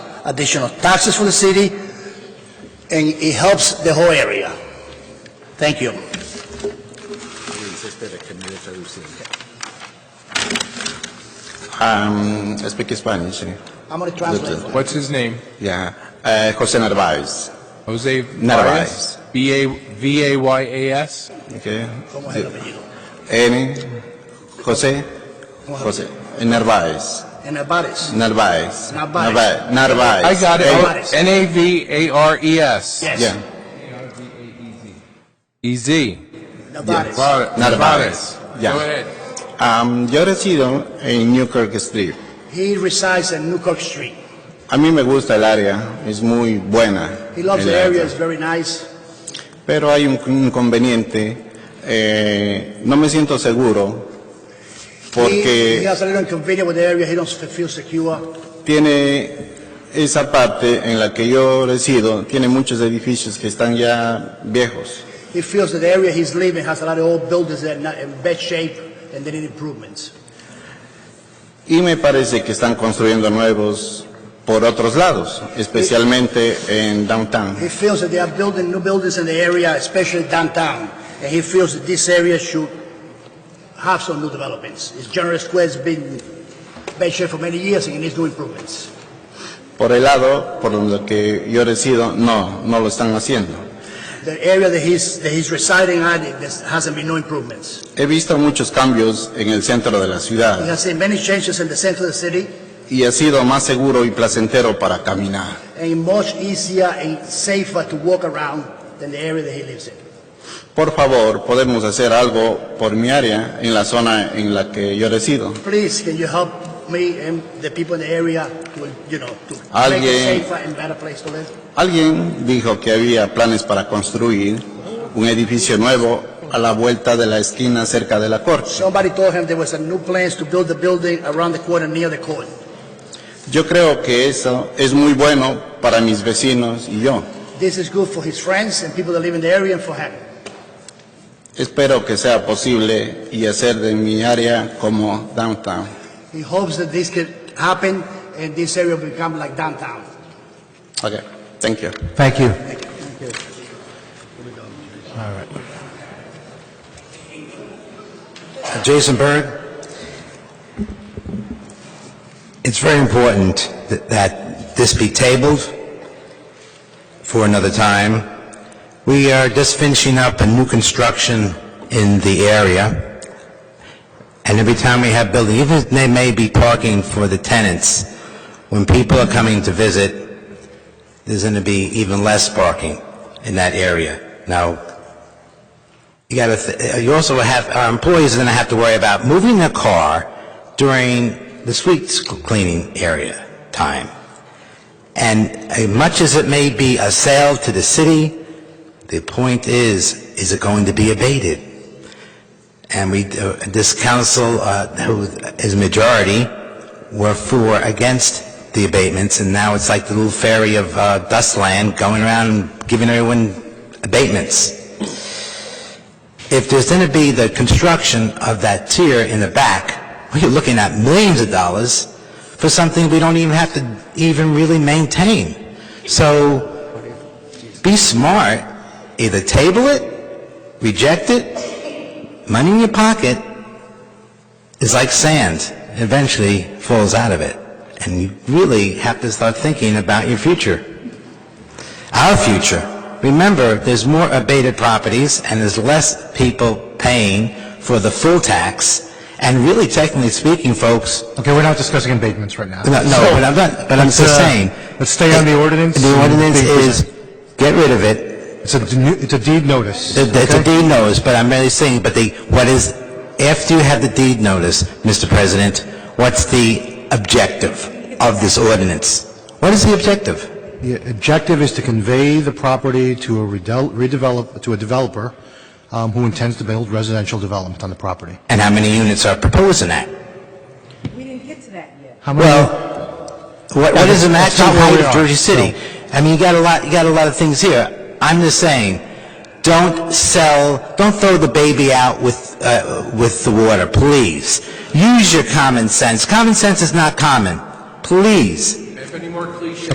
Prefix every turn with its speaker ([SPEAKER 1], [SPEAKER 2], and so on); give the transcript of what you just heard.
[SPEAKER 1] additional taxes for the city, and it helps the whole area. Thank you.
[SPEAKER 2] Um, I speak Spanish.
[SPEAKER 1] I'm going to translate. for you.
[SPEAKER 3] What's his name?
[SPEAKER 2] Yeah. Uh, Jose Narvaez.
[SPEAKER 3] Jose
[SPEAKER 2] Narvaez.
[SPEAKER 3] Narvaez? B A V A Y A S?
[SPEAKER 2] Okay.
[SPEAKER 1] ¿Cómo es el apellido?
[SPEAKER 2] N. Jose.
[SPEAKER 1] ¿Cómo es el
[SPEAKER 2] Jose. Narvaez.
[SPEAKER 1] apellido? En Alvarez.
[SPEAKER 2] Narvaez.
[SPEAKER 1] Narvaez.
[SPEAKER 2] Narvaez. Narvaez.
[SPEAKER 3] I got
[SPEAKER 1] Narvaez.
[SPEAKER 3] it. N A V A R E S. E
[SPEAKER 1] Yes.
[SPEAKER 2] Yeah.
[SPEAKER 3] Easy.
[SPEAKER 1] Alvarez.
[SPEAKER 2] Narvaez. Yeah.
[SPEAKER 3] Go ahead.
[SPEAKER 2] Um, yo resido en Newkirk Street.
[SPEAKER 1] He resides in Newcock Street.
[SPEAKER 2] A mí me gusta el área, es muy buena.
[SPEAKER 1] He loves
[SPEAKER 2] el
[SPEAKER 1] the
[SPEAKER 2] área.
[SPEAKER 1] area, it's very nice.
[SPEAKER 2] Pero hay un inconveniente, eh, no me siento seguro
[SPEAKER 1] He he
[SPEAKER 2] porque
[SPEAKER 1] has a little inconvenience with the area, he doesn't feel secure.
[SPEAKER 2] tiene esa parte en la que yo resido, tiene muchos edificios que están ya viejos.
[SPEAKER 1] He feels that the area he's living has a lot of old buildings that are not in bad shape and they need improvements.
[SPEAKER 2] Y me parece que están construyendo nuevos por otros lados, especialmente en downtown.
[SPEAKER 1] He feels that they are building new buildings in the area, especially downtown, and he feels that this area should have some new developments. His general square has been bad shape for many years and it needs new improvements.
[SPEAKER 2] Por el lado por donde que yo resido, no, no lo están haciendo.
[SPEAKER 1] The area that he's, that he's residing at, it- there hasn't been no improvements.
[SPEAKER 2] He visto muchos cambios en el centro de la
[SPEAKER 1] He
[SPEAKER 2] ciudad
[SPEAKER 1] has seen many changes in the center of the city
[SPEAKER 2] y ha sido más seguro y placentero para caminar.
[SPEAKER 1] and much easier and safer to walk around than the area that he lives in.
[SPEAKER 2] Por favor, podemos hacer algo por mi área en la zona en la que yo resido.
[SPEAKER 1] Please, can you help me and the people in the area to, you know, to make
[SPEAKER 2] Alguien-
[SPEAKER 1] it safer and better place to live?
[SPEAKER 2] Alguien dijo que había planes para construir un edificio nuevo a la vuelta de la esquina cerca de la corte.
[SPEAKER 1] Somebody told him there was a new plans to build the building around the corner near the court.
[SPEAKER 2] Yo creo que eso es muy bueno para mis vecinos y yo.
[SPEAKER 1] This is good for his friends and people that live in the area and for him.
[SPEAKER 2] Espero que sea posible y hacer de mi área como downtown.
[SPEAKER 1] He hopes that this could happen and this area will become like downtown.
[SPEAKER 2] Okay, thank you.
[SPEAKER 4] Thank you. All right. Jason Berg. It's very important that- that this be tabled for another time. We are just finishing up a new construction in the area. And every time we have building, even if they may be parking for the tenants, when people are coming to visit, there's going to be even less parking in that area. Now, you got to, you also have, our employees are going to have to worry about moving their car during the street cleaning area time. And as much as it may be a sale to the city, the point is, is it going to be abated? And we, uh, this council, uh, who is majority, were for, against the abatements, and now it's like the little fairy of uh, dust land going around and giving everyone abatements. If there's going to be the construction of that tier in the back, we're looking at millions of dollars for something we don't even have to even really maintain. So be smart, either table it, reject it, money in your pocket is like sand, It eventually falls out of it. And you really have to start thinking about your future. Our future. Remember, there's more abated properties and there's less people paying for the full tax. And really, technically speaking, folks, Okay, we're not discussing abatements right now.
[SPEAKER 3] No, no,
[SPEAKER 4] So, let's, uh,
[SPEAKER 3] but
[SPEAKER 4] but I'm not, but I'm just saying. Let's stay on the ordinance.
[SPEAKER 3] The
[SPEAKER 4] and
[SPEAKER 3] ordinance
[SPEAKER 4] be
[SPEAKER 3] is-
[SPEAKER 4] present.
[SPEAKER 2] Get rid of it.
[SPEAKER 4] It's a, de- it's a deed notice.
[SPEAKER 3] The-
[SPEAKER 4] okay?
[SPEAKER 3] the-
[SPEAKER 4] It's
[SPEAKER 3] the
[SPEAKER 4] a
[SPEAKER 3] deed notice, but I'm merely saying, but the, what is, after you have the deed notice, Mr. President, what's the objective of this ordinance? What is the objective?
[SPEAKER 4] The objective is to convey the property to a redel- redevelop, to a developer um, who intends to build residential development on the property.
[SPEAKER 3] And how many units are proposed in that?
[SPEAKER 5] We didn't get to that yet.
[SPEAKER 4] How many-
[SPEAKER 3] Well, what, what is the
[SPEAKER 4] That's
[SPEAKER 3] maximum
[SPEAKER 4] not where
[SPEAKER 3] height
[SPEAKER 4] we
[SPEAKER 3] of
[SPEAKER 4] are,
[SPEAKER 3] Jersey City? I mean, you got a lot, you got a lot of things here. I'm just saying, don't sell, don't throw the baby out with, uh, with the water, please. Use your common sense. Common sense is not common. Please.
[SPEAKER 6] If any more